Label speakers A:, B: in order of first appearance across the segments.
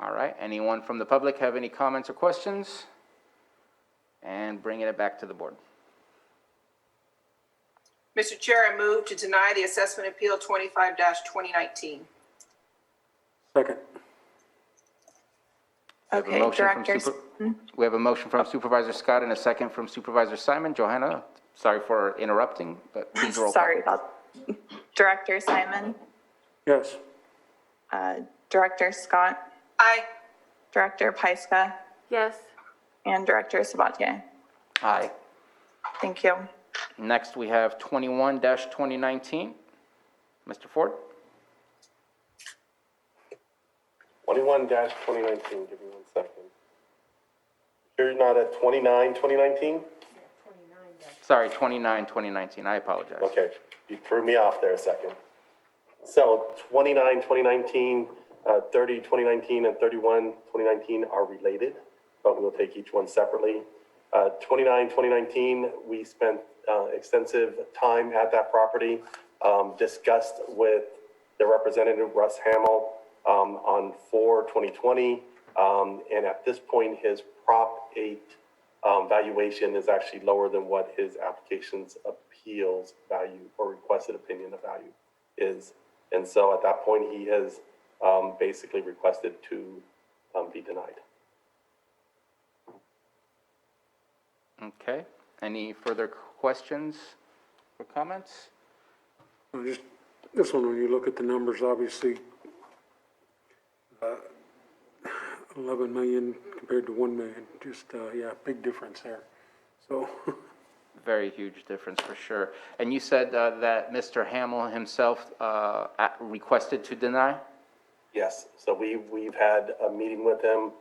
A: All right, anyone from the public have any comments or questions? And bringing it back to the board.
B: Mr. Chair, I move to deny the assessment appeal twenty-five twenty nineteen.
C: Second.
A: We have a
D: Okay, hmm?
A: motion from
D: directors.
A: super- We have a motion from Supervisor Scott and a second from Supervisor Simon. Johanna, sorry for interrupting, but please roll call.
D: Sorry about, Director Simon,
C: Yes.
D: uh, Director Scott,
B: Aye.
D: Director Pyska,
E: yes,
D: and Director Sabatier.
A: Aye.
D: Thank you.
A: Next, we have 21-2019. Mr. Ford?
F: 21 2019, give me one second. You're not at 29, 2019?
A: Sorry, 29-2019, I apologize.
F: Okay, you threw me off there a second. So 29, 2019, uh, 30, 2019, and 31, 2019 are related, but we'll take each one separately. Uh, 29, 2019, we spent uh, extensive time at that property, um, discussed with the representative, Russ Hamel, um, on 4, 2020. um, And at this point, his Prop 8 um, valuation is actually lower than what his application's appeals value or requested opinion of value is. And so at that point, he has, um, basically requested to, um, be denied.
A: Okay, any further questions or comments?
C: I just, this one, when you look at the numbers, obviously, uh, 11 million compared to 1 million, just, uh, yeah, big difference there. So,
A: Very huge difference, for sure. And you said uh, that Mr. Hamel himself uh, a- requested to deny?
F: Yes, so we, we've had a meeting with him,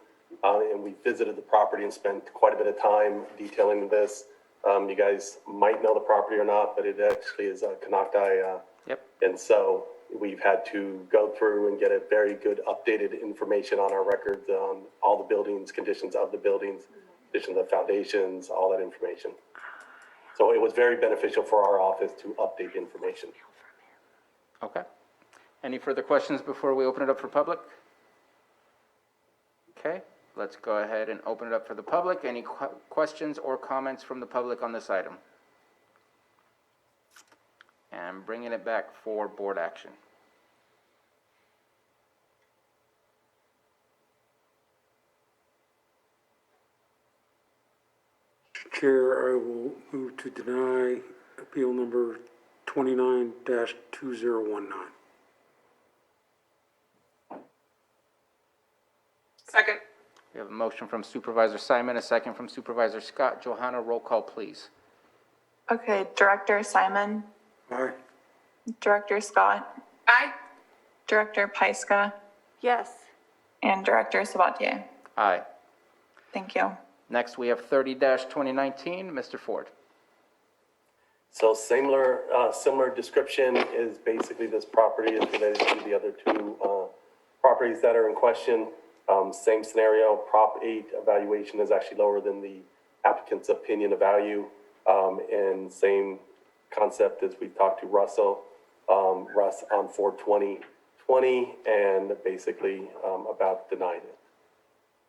F: uh, and we visited the property and spent quite a bit of time detailing this. Um, you guys might know the property or not, but it actually is a Canocti, uh.
A: Yep.
F: And so we've had to go through and get a very good updated information on our records, on all the buildings, conditions of the buildings, conditions of foundations, all that information. So it was very beneficial for our office to update information.
A: Okay. Any further questions before we open it up for public? Okay, let's go ahead and open it up for the public. Any que- questions or comments from the public on this item? And bringing it back for board action.
C: Chair, I will move to deny appeal number 29-2019.
B: Second.
A: We have a motion from Supervisor Simon, a second from Supervisor Scott. Johanna, roll call, please.
D: Okay, Director Simon,
C: Aye.
D: Director Scott,
B: Aye.
D: Director Pyska,
E: yes,
D: and Director Sabatier.
A: Aye.
D: Thank you.
A: Next, we have thirty twenty nineteen, Mr. Ford.
F: So similar, uh, similar description is basically this property is related to the other two, uh, properties that are in question. Um, same scenario, Prop eight evaluation is actually lower than the applicant's opinion of value. Um, and same concept as we talked to Russell, um, Russ on four twenty twenty and basically, um, about denying it.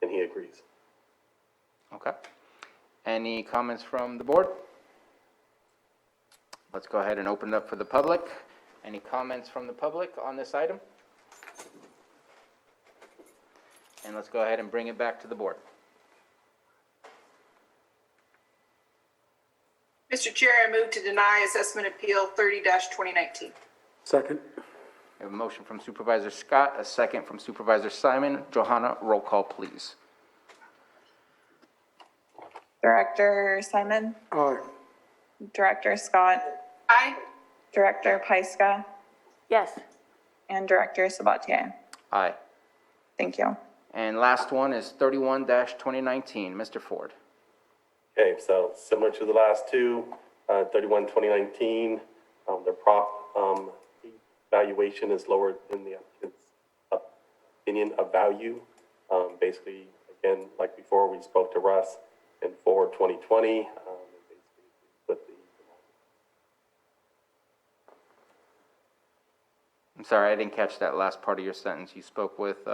F: And he agrees.
A: Okay. Any comments from the board? Let's go ahead and open it up for the public. Any comments from the public on this item? And let's go ahead and bring it back to the board.
B: Mr. Chair, I move to deny assessment appeal thirty twenty nineteen.
C: Second.
A: We have a motion from Supervisor Scott, a second from Supervisor Simon. Johanna, roll call, please.
D: Director Simon,
C: Aye.
D: Director Scott,
B: Aye.
D: Director Pyska,
E: yes,
D: and Director Sabatier.
A: Aye.
D: Thank you.
A: And last one is thirty-one twenty nineteen, Mr. Ford.
F: Okay, so similar to the last two, uh, thirty-one, twenty nineteen, um, the prop, um, valuation is lower than the applicant's opinion of value. Um, basically, again, like before, we spoke to Russ in four, twenty twenty, um, and basically put the,
A: I'm sorry, I didn't catch that last part of your sentence. You spoke with, uh,